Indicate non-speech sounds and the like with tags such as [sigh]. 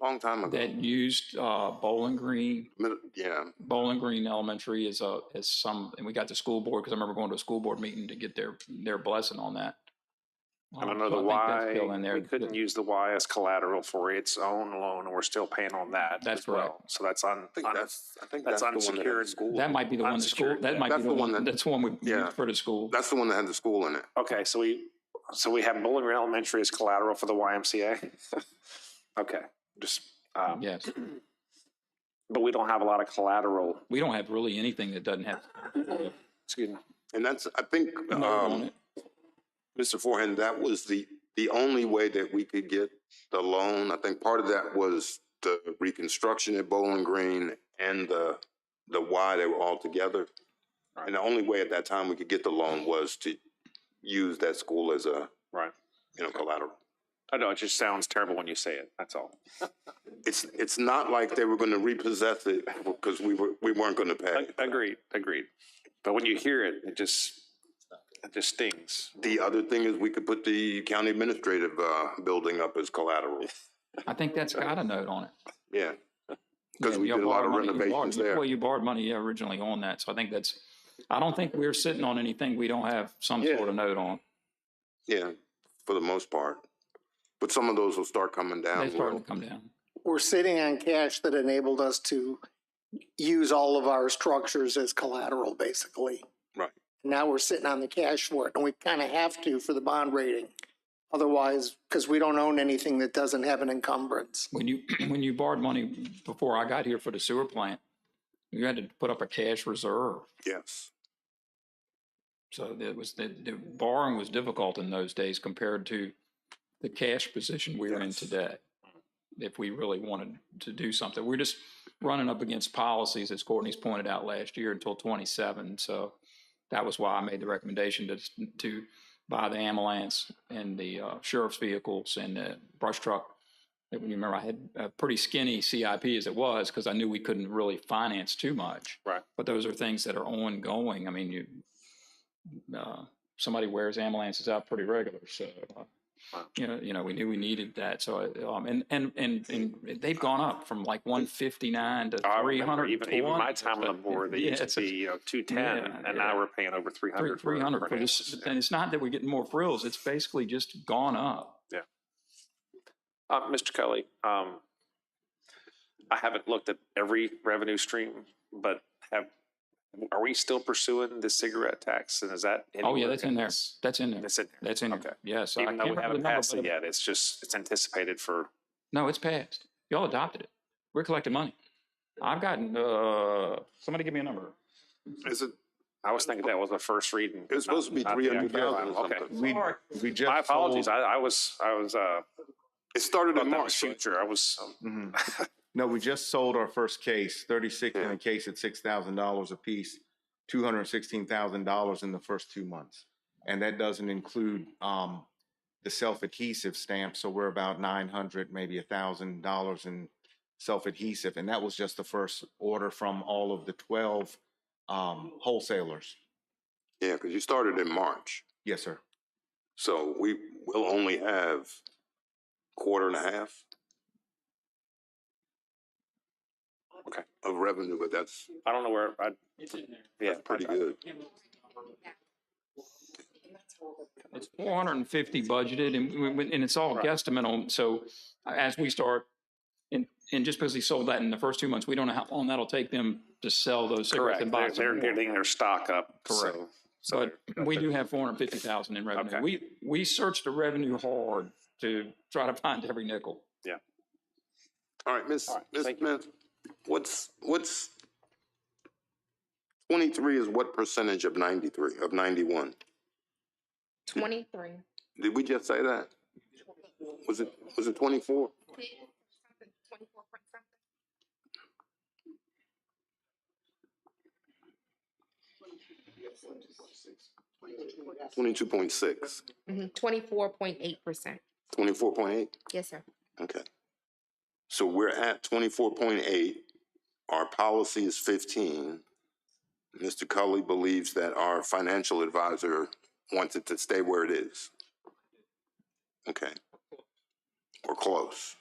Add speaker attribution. Speaker 1: Long time ago.
Speaker 2: that used uh, Bowling Green
Speaker 1: Mid- Yeah,
Speaker 2: Bowling Green Elementary is a, is some, and we got the school board, because I remember going to a school board meeting to get their, their blessing on that.
Speaker 3: I
Speaker 2: Um,
Speaker 3: don't
Speaker 2: so
Speaker 3: know the
Speaker 2: think that's
Speaker 3: why,
Speaker 2: still in there.
Speaker 3: we couldn't use the Y as collateral for its own loan, and we're still paying on that
Speaker 2: That's
Speaker 3: as well. So that's on,
Speaker 1: I think
Speaker 3: on-
Speaker 1: that's, I think that's
Speaker 3: that's
Speaker 1: the one that had the
Speaker 3: unsecured.
Speaker 1: school.
Speaker 2: That
Speaker 1: in it.
Speaker 2: might be the one, the school,
Speaker 3: Unsecured
Speaker 2: that
Speaker 3: debt.
Speaker 2: might be
Speaker 1: That's
Speaker 2: the
Speaker 1: the one
Speaker 2: one,
Speaker 1: that-
Speaker 2: that's the one we
Speaker 1: Yeah.
Speaker 2: used for the school.
Speaker 1: That's the one that had the school in it.
Speaker 3: Okay, so we, so we have Bowling Green Elementary as collateral for
Speaker 2: [laughs]
Speaker 3: the YMCA? Okay, just, um,
Speaker 2: Yes,
Speaker 3: but we don't have a lot of collateral,
Speaker 2: we don't have really anything that doesn't have.
Speaker 3: excuse me.
Speaker 1: And that's, I think,
Speaker 2: note on
Speaker 1: um,
Speaker 2: it.
Speaker 1: Mr. Forehand, that was the, the only way that we could get the loan. I think part of that was the reconstruction at Bowling Green and the, the Y, they were all together. And the only way at that time we could get the loan was to use that school as a,
Speaker 3: Right.
Speaker 1: you know, collateral.
Speaker 3: I know, it just sounds terrible when you say it, that's all.
Speaker 1: It's, it's not like they were going to repossess it because we were, we weren't going to pay.
Speaker 3: Ag- Agreed, agreed. But when you hear it, it just, it just stings.
Speaker 1: The other thing is we could put the county administrative, uh, building up as collateral.
Speaker 2: I think that's got a note on it.
Speaker 1: Yeah. Because
Speaker 2: Yeah,
Speaker 1: we
Speaker 2: y'all
Speaker 1: did a lot
Speaker 2: borrowed
Speaker 1: of
Speaker 2: money- you borrowed-
Speaker 1: renovations
Speaker 2: you-
Speaker 1: there.
Speaker 2: Well, you borrowed money yeah, originally on that, so I think that's, I don't think we're sitting on anything we don't have some
Speaker 1: Yeah.
Speaker 2: sort of note on.
Speaker 1: Yeah, for the most part. But some of those will start coming down.
Speaker 2: They started
Speaker 1: Will.
Speaker 2: to come down.
Speaker 4: we're sitting on cash that enabled us to use all of our structures as collateral, basically.
Speaker 1: Right.
Speaker 4: Now we're sitting on the cash for it, and we kind of have to for the bond rating. Otherwise, because we don't own anything that doesn't have an encumbrance.
Speaker 2: when you, [clears throat] when you borrowed money before I got here for the sewer plant, you had to put up a cash reserve.
Speaker 1: Yes.
Speaker 2: So it was, the, the borrowing was difficult in those days compared to the cash position we're in
Speaker 1: Yes.
Speaker 2: today. If we really wanted to do something, we're just running up against policies, as Courtney's pointed out last year, until twenty-seven. So that was why I made the recommendation to, to buy the ambulance and the uh, sheriff's vehicles and the brush truck. And You remember I had a pretty skinny CIP as it was because I knew we couldn't really finance too much.
Speaker 3: Right.
Speaker 2: But those are things that are ongoing. I mean, you, uh, somebody wears ambulances out pretty regular. So, uh,
Speaker 3: Wow.
Speaker 2: you know, you know, we knew we needed that. So, uh, um, and, and, and, and they've gone up from like one fifty-nine to
Speaker 3: I
Speaker 2: three
Speaker 3: remember
Speaker 2: hundred.
Speaker 3: Even, even my time on the board, they used to be, you know, two ten,
Speaker 2: yeah,
Speaker 3: and
Speaker 2: yeah.
Speaker 3: now we're paying over three hundred.
Speaker 2: Three hundred for this, and it's not that we're getting more frills. It's basically just gone up.
Speaker 3: Uh, Mr. Kelly, um, I haven't looked at every revenue stream, but have, are we still pursuing the cigarette tax, and is that?
Speaker 2: Oh, yeah,
Speaker 3: anywhere
Speaker 2: that's in there.
Speaker 3: this?
Speaker 2: That's in there.
Speaker 3: That's in there,
Speaker 2: That's in
Speaker 3: Okay.
Speaker 2: there. Yes. I
Speaker 3: even though
Speaker 2: can't remember
Speaker 3: we
Speaker 2: the
Speaker 3: haven't
Speaker 2: number,
Speaker 3: passed
Speaker 2: but
Speaker 3: it yet, it's just, it's anticipated for,
Speaker 2: No, it's passed. Y'all adopted it. We're collecting money. I've gotten, uh, somebody give me a number.
Speaker 1: Is it,
Speaker 3: I was thinking that was the first reading.
Speaker 1: it was supposed to be
Speaker 3: not- not the
Speaker 1: three hundred thousand
Speaker 3: actual
Speaker 1: or
Speaker 3: final. Okay.
Speaker 1: something.
Speaker 5: We, we just.
Speaker 3: My apologies,
Speaker 5: [laughs] sold-
Speaker 3: I, I was, I was, uh,
Speaker 1: It started
Speaker 3: thought
Speaker 1: in
Speaker 3: that
Speaker 1: March.
Speaker 3: was
Speaker 1: right?
Speaker 3: future, I was, um,
Speaker 5: Mhm. No, we just sold our first case, thirty-six in
Speaker 1: Yeah.
Speaker 5: a case at six thousand dollars apiece, two hundred and sixteen thousand dollars in the first two months. And that doesn't include, um, the self-adhesive stamp, so we're about nine hundred, maybe a thousand dollars in self-adhesive, and that was just the first order from all of the twelve, um, wholesalers.
Speaker 1: Yeah, because you started in March.
Speaker 5: Yes, sir.
Speaker 1: So we will only have quarter and a half.
Speaker 3: Okay.
Speaker 1: Of revenue, but that's,
Speaker 3: I don't know where, I, yeah.
Speaker 1: that's pretty
Speaker 3: I- I-
Speaker 1: good.
Speaker 2: It's four hundred and fifty budgeted and, we- we- and it's all
Speaker 3: Right.
Speaker 2: guesstimate on, so uh, as we start, and, and just because he sold that in the first two months, we don't know how long that'll take them to sell those cigarettes
Speaker 3: Correct.
Speaker 2: and
Speaker 3: They're,
Speaker 2: boxes.
Speaker 3: they're getting their stock up.
Speaker 2: Correct.
Speaker 3: So, so
Speaker 2: But
Speaker 3: they're-
Speaker 2: we
Speaker 3: they're-
Speaker 2: do have four hundred fifty thousand in revenue.
Speaker 3: Okay.
Speaker 2: We, we searched the revenue hard to try to find every nickel.
Speaker 1: All right, Miss
Speaker 3: All right,
Speaker 1: Ms.
Speaker 3: thank you.
Speaker 1: Smith, what's, what's, twenty-three is what percentage of ninety-three, of ninety-one?
Speaker 6: Twenty-three.
Speaker 1: Did we just say that? Was it, was it twenty-four?
Speaker 6: Twenty-four point something.
Speaker 1: Twenty-two point six,
Speaker 6: Mhm, twenty-four point eight percent.
Speaker 1: twenty-four point eight?
Speaker 6: Yes, sir.
Speaker 1: Okay. So we're at twenty-four point eight. Our policy is fifteen. Mr. Cully believes that our financial advisor wants it to stay where it is. Okay. Or close.